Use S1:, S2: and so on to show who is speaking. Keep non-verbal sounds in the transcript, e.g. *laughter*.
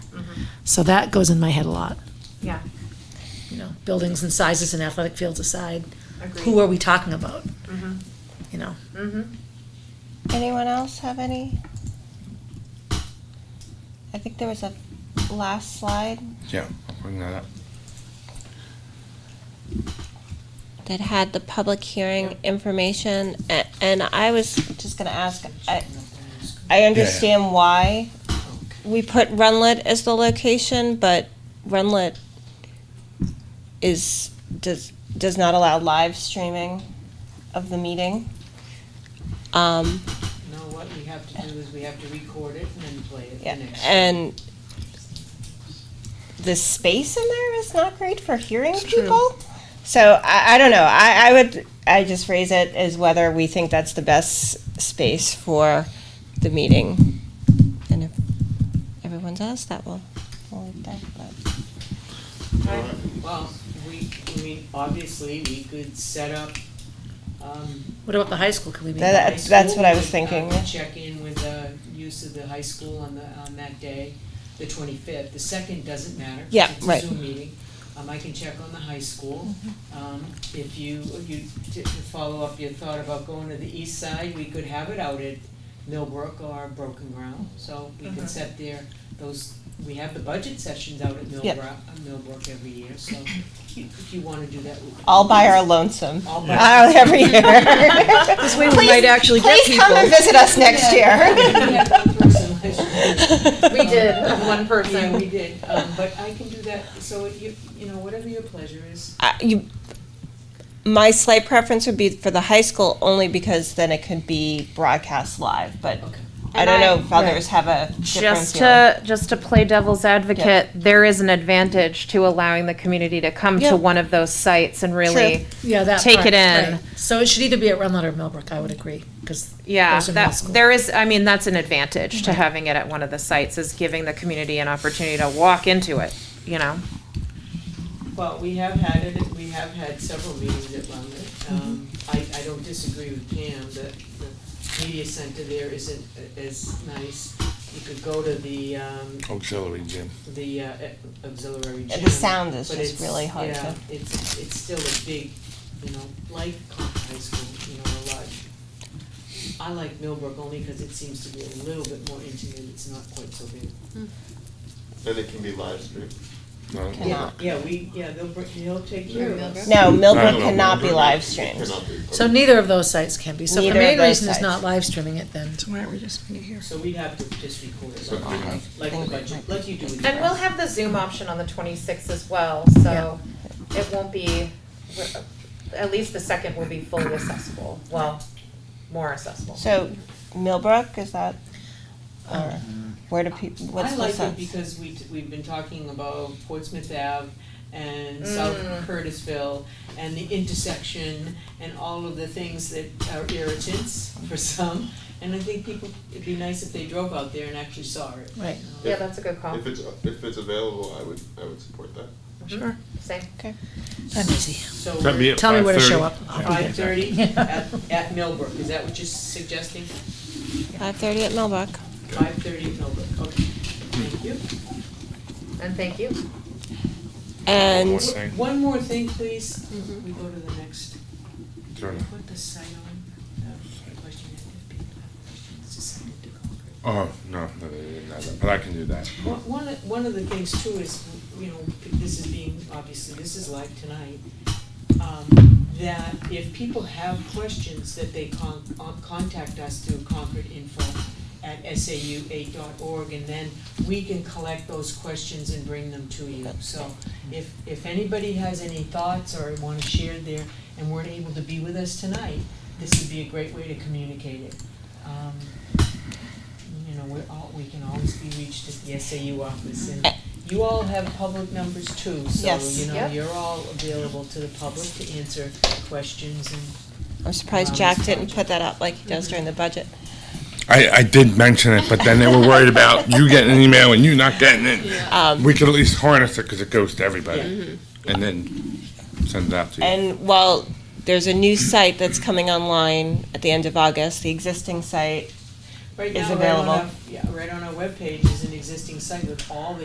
S1: So that goes in my head a lot,
S2: Yeah,
S1: you know, buildings and sizes and athletic fields aside, who
S2: agreed.
S1: are we talking about? You know,
S3: Anyone else have any? I think there was a last slide
S4: Yeah, I'll bring that up.
S3: that had the public hearing information, a- and I was just gonna ask, I, I understand why we put Runlet as the location, but Runlet is, does, does not allow live streaming of the meeting. Um,
S5: No, what we have to do is we have to record it and then play it
S3: Yeah,
S5: the next.
S3: and the space in there is not great for hearing people. So I, I don't know. I, I would I just raise it as whether we think that's the best space for the meeting, and if everyone's asked that, well, we'll leave that. But
S5: time. Well, we, I mean, obviously, we could set up, um.
S1: what about the high school? Can we be?
S3: That-
S5: high
S3: that's- that's
S5: school
S3: what I was
S5: with, uh,
S3: thinking, yeah.
S5: Check in with the use of the high school on the, on that day, the twenty-fifth. The second doesn't matter. 'cause
S3: Yeah,
S5: it's a
S3: right.
S5: Zoom meeting. Um, I can check on the high school.
S3: Mm-hmm.
S5: Um, if you, you, to to follow up your thought about going to the east side, we could have it out at Millbrook or Broken Ground. So we
S3: Mm-hmm.
S5: could set there, those, we have the budget sessions out at
S3: Yeah.
S5: Millbrook, uh, Millbrook every year, so if you wanna do that. we-
S3: all by our lonesome.
S5: All by
S3: Uh,
S1: *laughs*
S3: every year. this
S1: way we might actually get
S3: please come and visit us next year.
S5: We had
S2: We did, one
S5: one person last year. Yeah,
S2: person.
S5: we did, um, but I can do that, so if you, you know, whatever your pleasure is.
S3: I- you, my slight preference would be for the high school only because then it could be broadcast live, but I
S2: And I-
S3: don't know if others have a different
S2: Just
S3: feeling.
S2: to, just to play devil's advocate, there is an advantage to allowing the community to come
S3: Yeah.
S2: to one of those sites and really,
S1: Yeah, that
S2: Take
S1: part,
S2: it in.
S1: right. So it should either be at Runlet or Millbrook, I would agree, because
S2: yeah,
S1: Those are middle
S2: that,
S1: school.
S2: there is, I mean, that's an advantage to having it at one of the sites, is giving the community an opportunity to walk into it, you know?
S5: Well, we have had it, we have had several meetings at Lummet.
S2: Mm-hmm.
S5: Um, I, I don't disagree with Pam, that the media center there isn't a- as nice. You could go to the, um,
S4: Auxiliary gym.
S5: the uh, auxiliary
S3: Yeah,
S5: gym.
S3: the sound is
S5: but
S3: just
S5: it's-
S3: really hard
S5: Yeah,
S3: to-
S5: it's, it's still a big, you know, like high school, you know, a lot. I like Millbrook only because it seems to be a little bit more intimate, it's not quite so big.
S6: Then it can be live streamed.
S4: No,
S3: Yeah.
S5: Yeah, we, yeah, they'll, br- he'll take care of us.
S3: No,
S4: I
S3: Millbrook
S4: don't know,
S3: cannot be
S4: Millbrook,
S3: live
S6: It
S3: streamed.
S6: cannot be.
S1: So neither of those sites can be. So if the
S3: Neither of
S1: main
S3: those
S1: reason is
S3: sites.
S1: not live streaming it, then
S7: So why don't we just meet here?
S5: So we'd have to just record it,
S6: So
S5: like,
S6: we have-
S5: like
S3: think
S5: the
S3: we
S5: budget, like you do with
S2: And
S5: your-
S2: we'll have the Zoom option on the 26th as well, so it won't be, at least the second will be fully accessible, well, more accessible.
S3: So Millbrook, is that, or where do people, what's
S5: I
S3: the
S5: like it
S3: sense?
S5: because we, t- we've been talking about Portsmouth Ave and South Curtisville and the intersection and all of the things that are irritants for some. And I think people, it'd be nice if they drove out there and actually saw it.
S1: right.
S2: Yeah, that's a good call. Mm-hmm.
S6: If it's, if it's available, I would, I would support that.
S1: Sure.
S2: Same.
S1: I'm easy.
S5: Um, So
S4: That'd be
S5: we're
S4: at
S1: Tell me where to
S4: 5:30.
S1: show up. I'll be
S5: five
S1: there.
S5: thirty
S1: Yeah.
S5: at, at Millbrook, is that what you're suggesting?
S3: Five thirty at Millbrook.
S5: Five thirty at Millbrook, okay, thank you.
S2: And thank you.
S3: And
S4: One thing.
S5: One more thing, please, we go to the next.
S4: Sure.
S5: Put the site on, uh, question, if people have questions, decided to conquer.
S4: Oh, no, no, no, no, no, but I can do that.
S5: One, one of- one of the things too is, you know, this is being, obviously, this is live tonight, um, that if people have questions, that they con- uh, contact us through concordinfo@sau8.org, and then we can collect those questions and bring them to you. So if, if anybody has any thoughts or want to share there and weren't able to be with us tonight, this would be a great way to communicate it. Um, you know, we're all, we can always be reached at the SAU office, and you all have public numbers too, so,
S3: Yes.
S5: you know,
S2: Yep.
S5: you're all available to the public to answer questions and.
S3: I'm surprised Jack didn't put that up like he does during the budget.
S4: I, I did mention it, but then they were worried about you getting an email and you not getting it.
S3: Um,
S4: We could at least harness it because it goes to everybody and then send it out to you.
S3: And while there's a new site that's coming online at the end of August, the existing site
S5: Right
S3: Is
S5: now, right on our-
S3: available.
S5: Yeah, right on our webpage is an existing site with all the